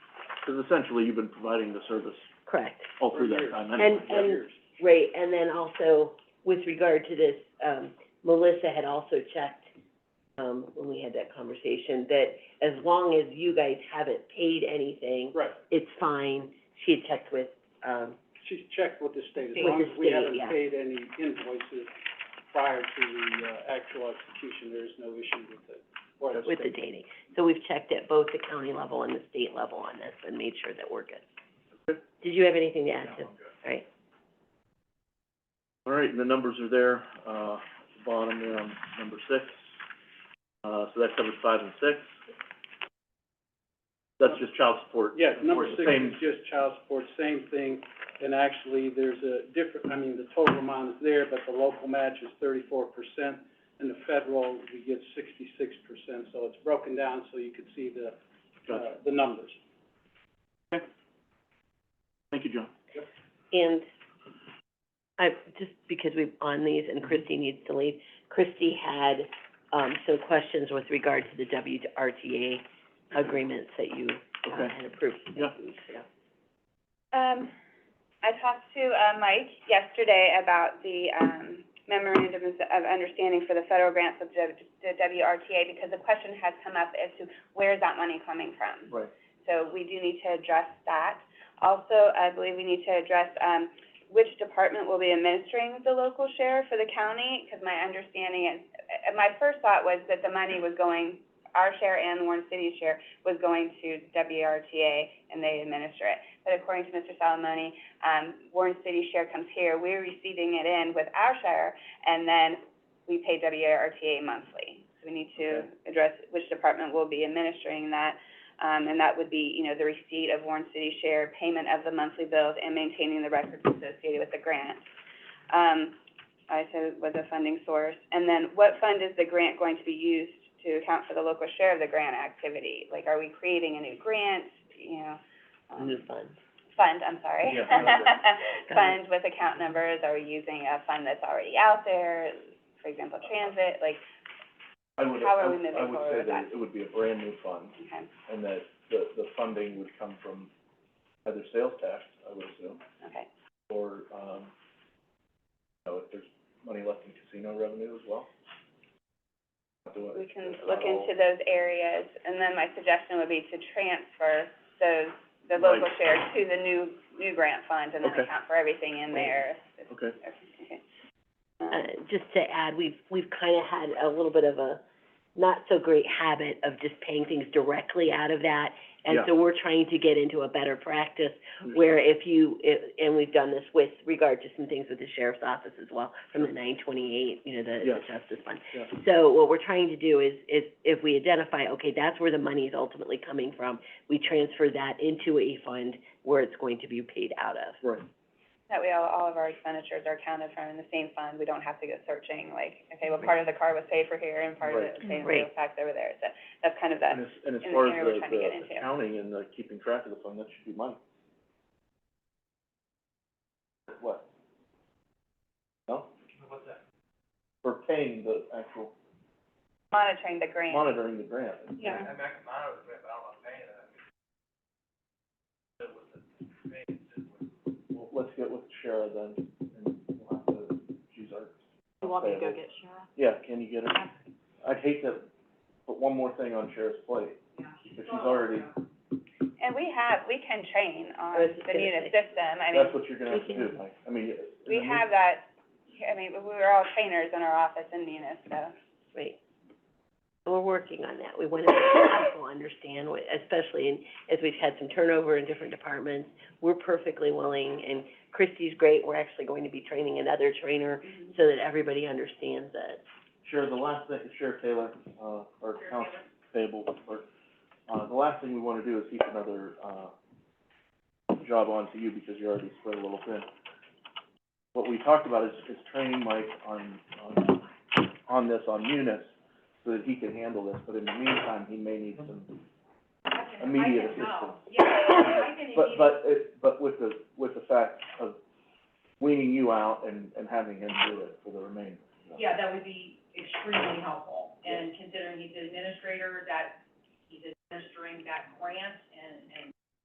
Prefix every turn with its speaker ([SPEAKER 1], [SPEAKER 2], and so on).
[SPEAKER 1] because essentially you've been providing the service
[SPEAKER 2] Correct.
[SPEAKER 1] all through that time anyway.
[SPEAKER 2] And- and- Right, and then also with regard to this, um, Melissa had also checked, um, when we had that conversation, that as long as you guys haven't paid anything,
[SPEAKER 3] Right,
[SPEAKER 2] it's fine. She had checked with, um,
[SPEAKER 3] she's checked with the state, as
[SPEAKER 2] With
[SPEAKER 3] long
[SPEAKER 2] the
[SPEAKER 3] as we
[SPEAKER 2] state,
[SPEAKER 3] haven't
[SPEAKER 2] yeah.
[SPEAKER 3] paid any invoices prior to the, uh, actual execution, there's no issue with the, or the
[SPEAKER 2] with the
[SPEAKER 3] state.
[SPEAKER 2] dating. So we've checked at both the county level and the state level on this and made sure that we're good. Did you have anything to add to? All right,
[SPEAKER 1] All right, and the numbers are there, uh, at the bottom there on number six. Uh, so that covers five and six. That's just child support.
[SPEAKER 3] Yeah, number
[SPEAKER 1] Of course,
[SPEAKER 3] six
[SPEAKER 1] same-
[SPEAKER 3] is just child support, same thing, and actually, there's a different, I mean, the total amount is there, but the local match is thirty-four percent, and the federal, we get sixty-six percent, so it's broken down so you could see the, uh,
[SPEAKER 1] Gotcha.
[SPEAKER 3] the numbers.
[SPEAKER 1] Thank you, John.
[SPEAKER 2] and I, just because we've on these and Christy needs to leave, Christy had, um, some questions with regard to the WRTA agreements that you um,
[SPEAKER 1] Okay.
[SPEAKER 2] had approved.
[SPEAKER 1] Yeah.
[SPEAKER 4] Um, I talked to, uh, Mike yesterday about the, um, memorandum of, of understanding for the federal grants of the, the WRTA, because the question has come up as to where is that money coming from?
[SPEAKER 1] Right.
[SPEAKER 4] So we do need to address that. Also, I believe we need to address, um, which department will be administering the local share for the county, because my understanding is, uh, my first thought was that the money was going, our share and Warren City's share was going to WRTA, and they administer it. But according to Mr. Salamone, um, Warren City's share comes here, we're receiving it in with our share, and then we pay WRTA monthly. So we need to
[SPEAKER 1] Okay.
[SPEAKER 4] address which department will be administering that, um, and that would be, you know, the receipt of Warren City's share, payment of the monthly bills, and maintaining the records associated with the grant. Um, I said was a funding source. And then what fund is the grant going to be used to account for the local share of the grant activity? Like, are we creating a new grant, you know? um,
[SPEAKER 2] New funds.
[SPEAKER 4] fund, I'm sorry.
[SPEAKER 1] Yeah, I know
[SPEAKER 4] Fund with account numbers, are we using a fund that's already out there, for example, transit, like,
[SPEAKER 5] I would,
[SPEAKER 4] How are
[SPEAKER 5] I
[SPEAKER 4] we
[SPEAKER 5] would,
[SPEAKER 4] moving
[SPEAKER 5] I would
[SPEAKER 4] forward
[SPEAKER 5] say
[SPEAKER 4] with
[SPEAKER 5] that
[SPEAKER 4] that?
[SPEAKER 5] it would be a brand new fund,
[SPEAKER 4] okay,
[SPEAKER 5] and that the, the funding would come from either sales tax, I would assume,
[SPEAKER 4] okay.
[SPEAKER 5] or, um, you know, if there's money left in casino revenue as well. Not to-
[SPEAKER 4] We can
[SPEAKER 5] it's not
[SPEAKER 1] Oh.
[SPEAKER 4] look
[SPEAKER 5] all-
[SPEAKER 4] into those areas, and then my suggestion would be to transfer those, the local
[SPEAKER 1] Right.
[SPEAKER 4] share to the new, new grant fund, and then
[SPEAKER 1] Okay.
[SPEAKER 4] account for everything in there. if-
[SPEAKER 1] Okay.
[SPEAKER 4] if- okay. Um,
[SPEAKER 2] uh, just to add, we've, we've kind of had a little bit of a not so great habit of just paying things directly out of that. And
[SPEAKER 1] Yeah.
[SPEAKER 2] so we're trying to get into a better practice where if you, i- and we've done this with regard to some things with the sheriff's office as well, from the nine twenty-eight, you know, the,
[SPEAKER 1] Yeah.
[SPEAKER 2] the justice fund.
[SPEAKER 1] Yeah.
[SPEAKER 2] So what we're trying to do is, is if we identify, okay, that's where the money is ultimately coming from, we transfer that into a fund where it's going to be paid out of.
[SPEAKER 1] Right.
[SPEAKER 4] That way, all, all of our expenditures are accounted for in the same fund, we don't have to go searching, like, okay, well, part of the car was paid for here, and part of it was paid for the
[SPEAKER 2] Right.
[SPEAKER 4] tax over there, so that's kind of the,
[SPEAKER 1] And as, and as
[SPEAKER 4] in the
[SPEAKER 1] far as
[SPEAKER 4] area we're
[SPEAKER 1] the,
[SPEAKER 4] trying to get
[SPEAKER 1] the
[SPEAKER 4] into.
[SPEAKER 1] accounting and the keeping track of the fund, that should be mine.
[SPEAKER 5] What? No?
[SPEAKER 3] What's that?
[SPEAKER 5] For paying the actual,
[SPEAKER 4] monitoring the grant.
[SPEAKER 5] monitoring the grant.
[SPEAKER 4] Yeah.
[SPEAKER 3] I mean, I can monitor it, but I don't know paying it.
[SPEAKER 5] Well, let's get with Shara then, and we'll have to use our.
[SPEAKER 6] You want me to go get Shara?
[SPEAKER 5] Yeah, can you get her? I'd hate to put one more thing on Shara's plate, because she's already,
[SPEAKER 4] And we have, we can train on
[SPEAKER 2] was just
[SPEAKER 4] the
[SPEAKER 2] gonna
[SPEAKER 4] Munis
[SPEAKER 2] say.
[SPEAKER 4] system, I mean,
[SPEAKER 5] that's what you're gonna have to do, Mike, I mean.
[SPEAKER 4] we have that, I mean, we were all trainers in our office in Munis, so.
[SPEAKER 2] Right. We're working on that. We want to make people understand, what- especially in, as we've had some turnover in different departments. We're perfectly willing, and Christy's great. We're actually going to be training another trainer so that everybody understands that.
[SPEAKER 5] Shara, the last thing, Sheriff Taylor, uh, or Council Table, or, uh, the last thing we wanna do is heap another, uh, job onto you, because you're already spread a little thin. What we talked about is, is training Mike on, on, on this, on Munis, so that he can handle this, but in the meantime, he may need some immediate assistance. But, but, it, but with the, with the fact of weaning you out and, and having him do it for the remainder.
[SPEAKER 6] Yeah, that would be extremely helpful, and considering he's an administrator, that, he's administering that grant and, and